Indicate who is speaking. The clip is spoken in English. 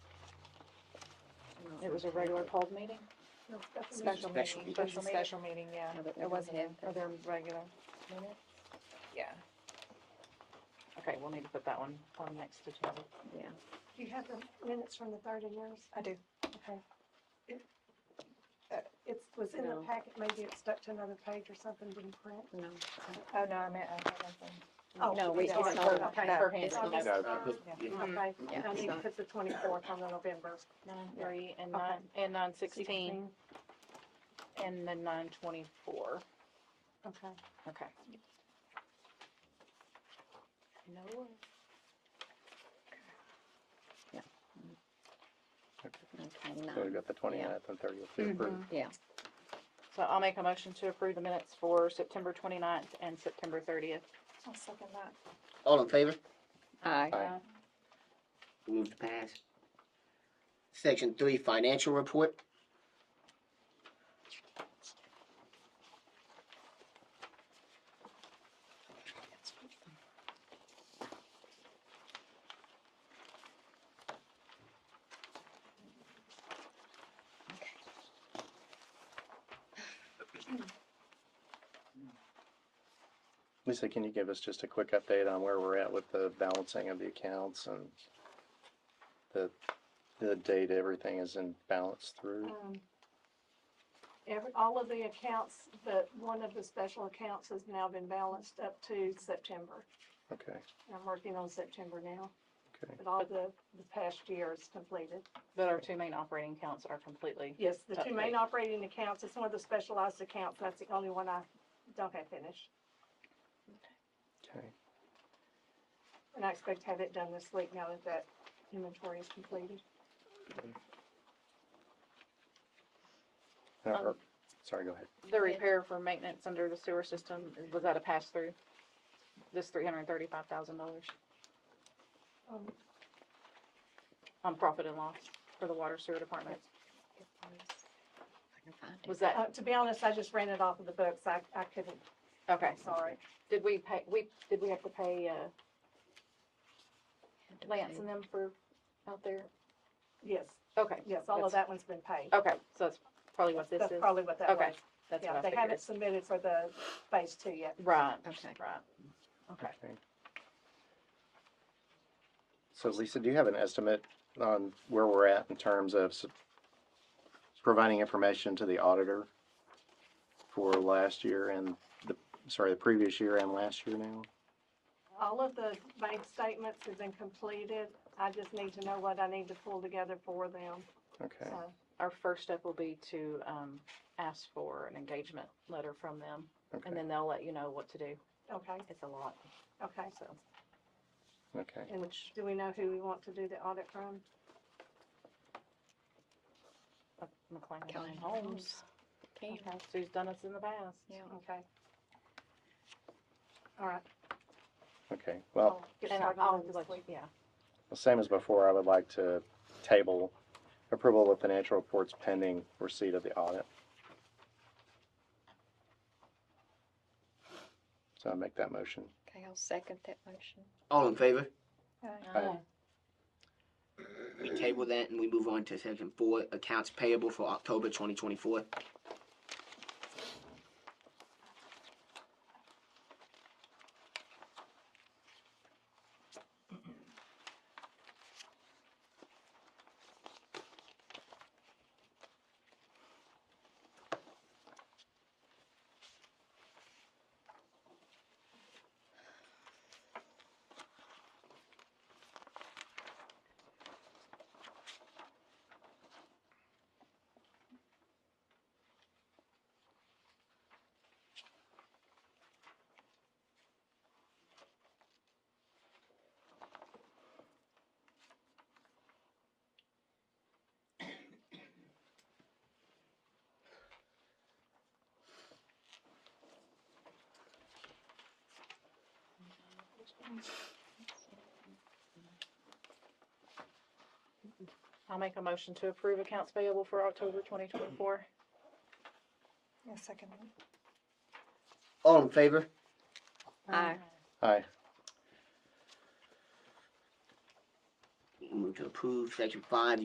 Speaker 1: It was a regular called meeting?
Speaker 2: Special
Speaker 3: Special
Speaker 2: meeting,
Speaker 3: meeting.
Speaker 2: special, special meeting, yeah.
Speaker 1: No, but
Speaker 2: It wasn't in,
Speaker 1: everything
Speaker 2: or their regular,
Speaker 1: Minute?
Speaker 2: yeah. Okay, we'll need to put that one on next agenda.
Speaker 1: Yeah.
Speaker 4: Do you have the minutes from the third and yours?
Speaker 2: I do.
Speaker 4: Okay. It uh, it's was in the
Speaker 1: No.
Speaker 4: packet, maybe it stuck to another page or something, didn't print.
Speaker 1: No.
Speaker 2: Oh, no, I meant, I have nothing.
Speaker 4: Oh,
Speaker 1: No, we,
Speaker 4: it's
Speaker 1: it's
Speaker 4: on Mm-hmm.
Speaker 1: not,
Speaker 4: her-
Speaker 2: okay.
Speaker 1: it's her
Speaker 4: It's on
Speaker 1: handwritten.
Speaker 4: this
Speaker 3: No,
Speaker 4: third. Okay,
Speaker 1: Yeah,
Speaker 4: I
Speaker 1: it's
Speaker 4: need to
Speaker 1: not.
Speaker 4: put the twenty-fourth on the November.
Speaker 1: Nine
Speaker 2: Mm-hmm. Yeah.
Speaker 1: three and
Speaker 4: Okay.
Speaker 1: nine, and nine sixteen, and then nine twenty-four.
Speaker 4: Okay.
Speaker 2: Okay.
Speaker 1: No way. Yeah. Okay,
Speaker 3: So we've
Speaker 1: nine,
Speaker 3: got the 29th and thirtieth to approve.
Speaker 1: yeah.
Speaker 2: So I'll make a motion to approve the minutes for September 29th and September thirtieth. I'll second that.
Speaker 5: All in favor?
Speaker 1: Aye.
Speaker 3: Aye.
Speaker 5: Move to pass. Section three, financial report.
Speaker 3: Lisa, can you give us just a quick update on where we're at with the balancing of the accounts and the, the date everything is in balance through?
Speaker 4: Um, Every, all of the accounts, but one of the special accounts has now been balanced up to September.
Speaker 3: Okay,
Speaker 4: I'm working on September now,
Speaker 3: okay.
Speaker 4: but all the, the past year is completed.
Speaker 2: But our two main operating accounts are completely,
Speaker 4: Yes, the two main
Speaker 2: Okay.
Speaker 4: operating accounts, it's one of the specialized accounts, that's the only one I don't have finished.
Speaker 3: Okay.
Speaker 4: And I expect to have it done this week now that that inventory is completed.
Speaker 3: Uh,
Speaker 2: Um,
Speaker 3: or- Sorry, go ahead.
Speaker 2: the repair for maintenance under the sewer system, was that a pass-through? This three hundred and thirty-five thousand dollars
Speaker 4: Um,
Speaker 2: on profit and loss for the water sewer department?
Speaker 1: I can find it.
Speaker 2: Was
Speaker 4: uh,
Speaker 2: that,
Speaker 4: to be honest, I just ran it off of the books, I, I couldn't,
Speaker 2: okay,
Speaker 4: I'm sorry.
Speaker 2: did we pay, we, did we have to pay, uh,
Speaker 1: Had to
Speaker 2: Lance
Speaker 1: pay.
Speaker 2: and them for out there?
Speaker 4: Yes,
Speaker 2: Okay,
Speaker 4: yes, all of
Speaker 2: That's-
Speaker 4: that one's been paid.
Speaker 2: okay, so that's probably what this
Speaker 4: That's
Speaker 2: is,
Speaker 4: probably what that
Speaker 2: Okay.
Speaker 4: was.
Speaker 2: that's
Speaker 4: Yeah,
Speaker 2: what I
Speaker 4: they
Speaker 2: figured.
Speaker 4: haven't submitted for the phase two yet.
Speaker 2: Right,
Speaker 1: Okay.
Speaker 2: right, okay.
Speaker 3: Okay. So Lisa, do you have an estimate on where we're at in terms of s- providing information to the auditor for last year and the, sorry, the previous year and last year now?
Speaker 4: All of the bank statements have been completed. I just need to know what I need to pull together for them,
Speaker 3: Okay,
Speaker 4: so.
Speaker 2: Our first step will be to, um, ask for an engagement letter from them, and
Speaker 3: okay,
Speaker 2: then they'll let you know what to do.
Speaker 4: Okay,
Speaker 2: It's a lot,
Speaker 4: okay.
Speaker 2: so.
Speaker 3: okay.
Speaker 4: And do we know who we want to do the audit from?
Speaker 2: McLean
Speaker 1: Kelly
Speaker 2: Holmes.
Speaker 1: Can you-
Speaker 2: Okay, so he's done us in the past.
Speaker 1: Yeah.
Speaker 4: Okay. All right.
Speaker 3: Okay, well,
Speaker 4: I'll get
Speaker 2: And
Speaker 4: started
Speaker 2: I'll,
Speaker 4: on this
Speaker 2: let-
Speaker 4: week.
Speaker 2: yeah,
Speaker 3: the same as before, I would like to table approval of financial reports pending receipt of the audit. So I make that motion.
Speaker 1: Okay, I'll second that motion.
Speaker 5: All in favor?
Speaker 3: Aye.
Speaker 5: We table that and we move on to section four, accounts payable for October twenty twenty-four.
Speaker 2: I'll make a motion to approve accounts payable for October twenty twenty-four.
Speaker 5: All in favor?
Speaker 1: Aye.
Speaker 3: Aye.
Speaker 5: Move to approve section five,